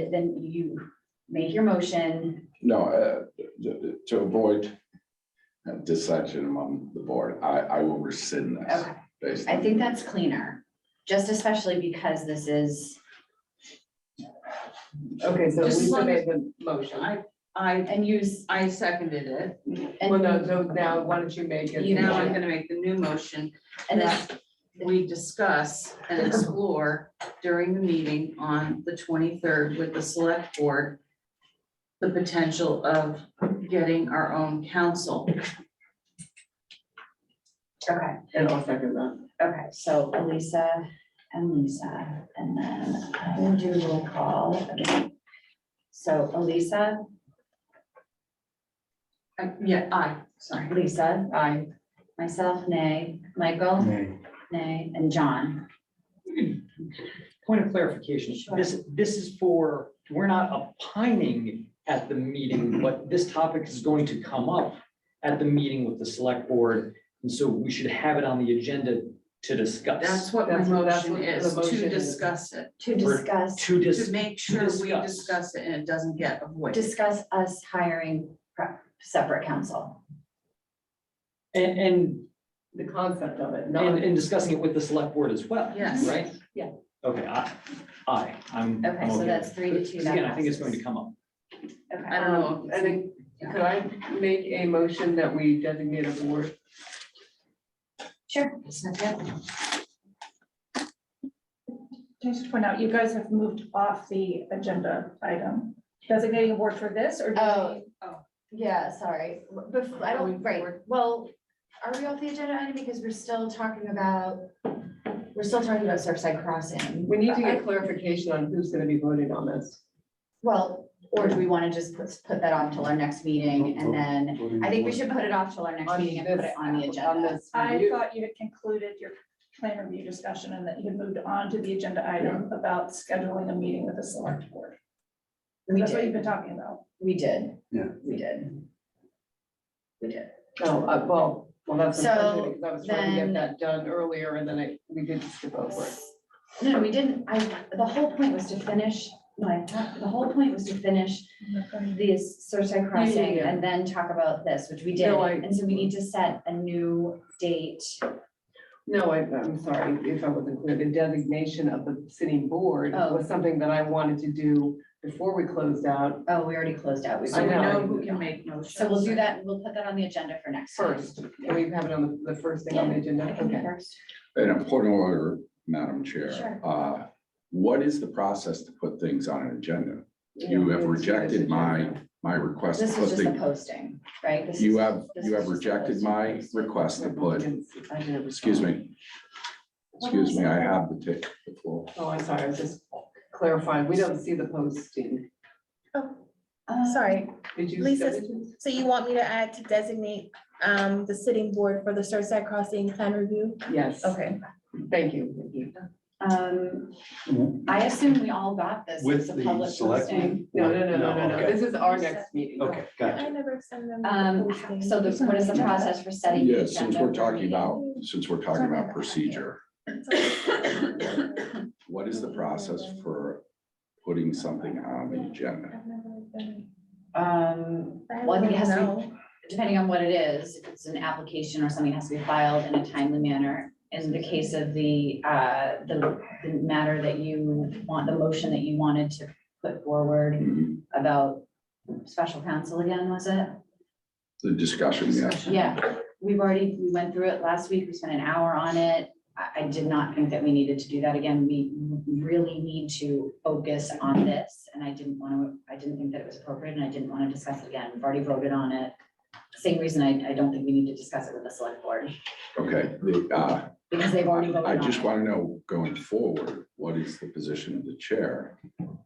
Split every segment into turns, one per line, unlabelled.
it, then you make your motion.
No, uh, d- d- to avoid uh, dissension among the board, I, I will rescind this.
Okay,
based
I
on-
think that's cleaner, just especially because this is,
Okay, so
Just as
Lisa
long
made
as-
the motion.
I, I,
and use,
I seconded it.
Well,
and,
no, so now why don't you make it?
You know, I'm gonna make the new motion
and this,
that we discuss and explore during the meeting on the twenty-third with the select board the potential of getting our own counsel.
okay,
And I'll second that.
okay, so Elisa and Lisa, and then I will do a roll call again. So Elisa,
I- Uh, Yeah, I, sorry.
Lisa,
I,
myself, nay, Michael, nay, and John.
Point of clarification,
Sure.
this, this is for, we're not opining at the
Mm-hmm.
meeting, but this topic is going to come up at the meeting with the select board, and so we should have it on the agenda to
That's
discuss,
what my
That's what- that's
motion
what the
is,
motion
to
is.
discuss it,
To
We're-
discuss,
to
to
dis,
make sure we
discuss.
discuss it and it doesn't get avoided.
discuss us hiring pre- separate counsel.
and, and,
the concept of it,
and,
not,
and discussing it with the select board as well,
Yes.
right?
Yeah.
Okay, I, I, I'm. I'm
Okay, so that's three to two,
Because
that
Again, I think it's going
passes.
to come up.
Okay.
I don't know.
I think- um, could I make a motion that we designate a board?
Sure.
Can I just point out, you guys have moved off the agenda item, designating a board for this or?
Oh. Yeah, sorry, before, I
Are we
don't, right,
forward?
well, are we off the agenda item because we're still talking about, we're still talking about Surfside Crossing?
We need to
I-
get clarification on who's gonna be voting on this.
Well, or do we want to just put, put that off till our next meeting and then, I think we should put it off till our next
On
meeting and put
this-
it on the
on
agenda.
this
I
review.
thought you had concluded your plan review discussion and that you had moved on to the agenda item about scheduling a meeting with the select board.
We
That's what you've
did,
been talking about.
we did.
Yeah.
We did. We did.
No, uh, well, well, that's.
So
unfortunate, 'cause I was trying to
then-
get that done earlier and then I, we did skip over it.
No, we didn't, I, the whole point was to finish, no, I thought- the whole point was to finish this Surfside Crossing
yeah.
and then talk about this, which we did.
No, I-
And so we need to set a new date.
No, I, I'm sorry if I wasn't clear. The designation of the sitting board
Oh.
was something that I wanted to do before we closed out
Oh, we already closed out. We've
So we
I know.
know who can make motions.
So we'll do that, we'll put that on the agenda for next. time.
first. Can we have it on the, the first thing on the agenda?
I can do
Okay.
first.
An important order, Madam
Sure.
Chair. Uh, What is the process to put things on an agenda? You have rejected my, my request to
This
put
is just the
things,
posting, right? This
you
is-
have,
this
you
is
have
just the
rejected
posting.
my request to put, excuse me. Excuse me, I have the tick before.
Oh, I'm sorry, I was just clarifying. We don't see the posting.
Uh,
Sorry,
Did you?
Lisa, Oh, so you want me to add to designate um the sitting board for the Surfside Crossing plan review?
Yes.
Okay.
Thank you. Thank you.
Um, I assume we all got this.
With
It's a
the
public
select-
posting.
No, no, no, no, no, no.
okay.
This is our next meeting.
Okay, gotcha.
I never send them. the
Um,
posting.
so the, what is the process for setting? the
Yeah, since
agenda
we're
for
talking
meeting?
about, since we're talking
Sorry
about
about that.
procedure, what is the process for putting something on the agenda?
I've never done
Um,
it. I
Well, I think it has to be-
don't know.
depending on what it is, if it's an application or something it has to be filed in a timely manner. In the case of the, uh, the, the matter that you want, the motion that you wanted to put forward
Mhm.
about special counsel again, was it?
The discussion, yes.
Yeah, we've already, we went through it last week, we spent an hour on it. I, I did not think that we needed to do that again, we really need to focus on this, and I didn't want to, I didn't think that it was appropriate, and I didn't want to discuss it again, we've already voted on it. Same reason I, I don't think we need to discuss it with the select board,
Okay, the, uh,
because they've already voted
I
on
just
it.
want to know, going forward, what is the position of the chair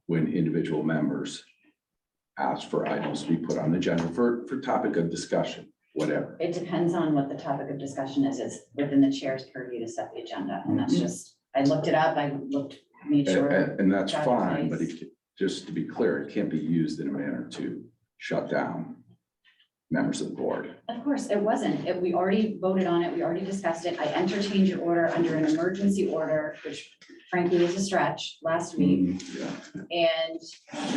when individual members ask for items to be put on the agenda for, for topic of discussion, whatever?
It depends on what the topic of discussion is, it's within the chair's purview to set the agenda, and that's just, I looked it up, I looked, made
Mm-hmm.
sure.
And, and- and that's
Got it,
fine, but
please.
it, just to be clear, it can't be used in a manner to shut down members of the board.
Of course, it wasn't. It- We already voted on it. We already discussed it. I entertained your order under an emergency order, which frankly is a stretch last week.
Yeah.
And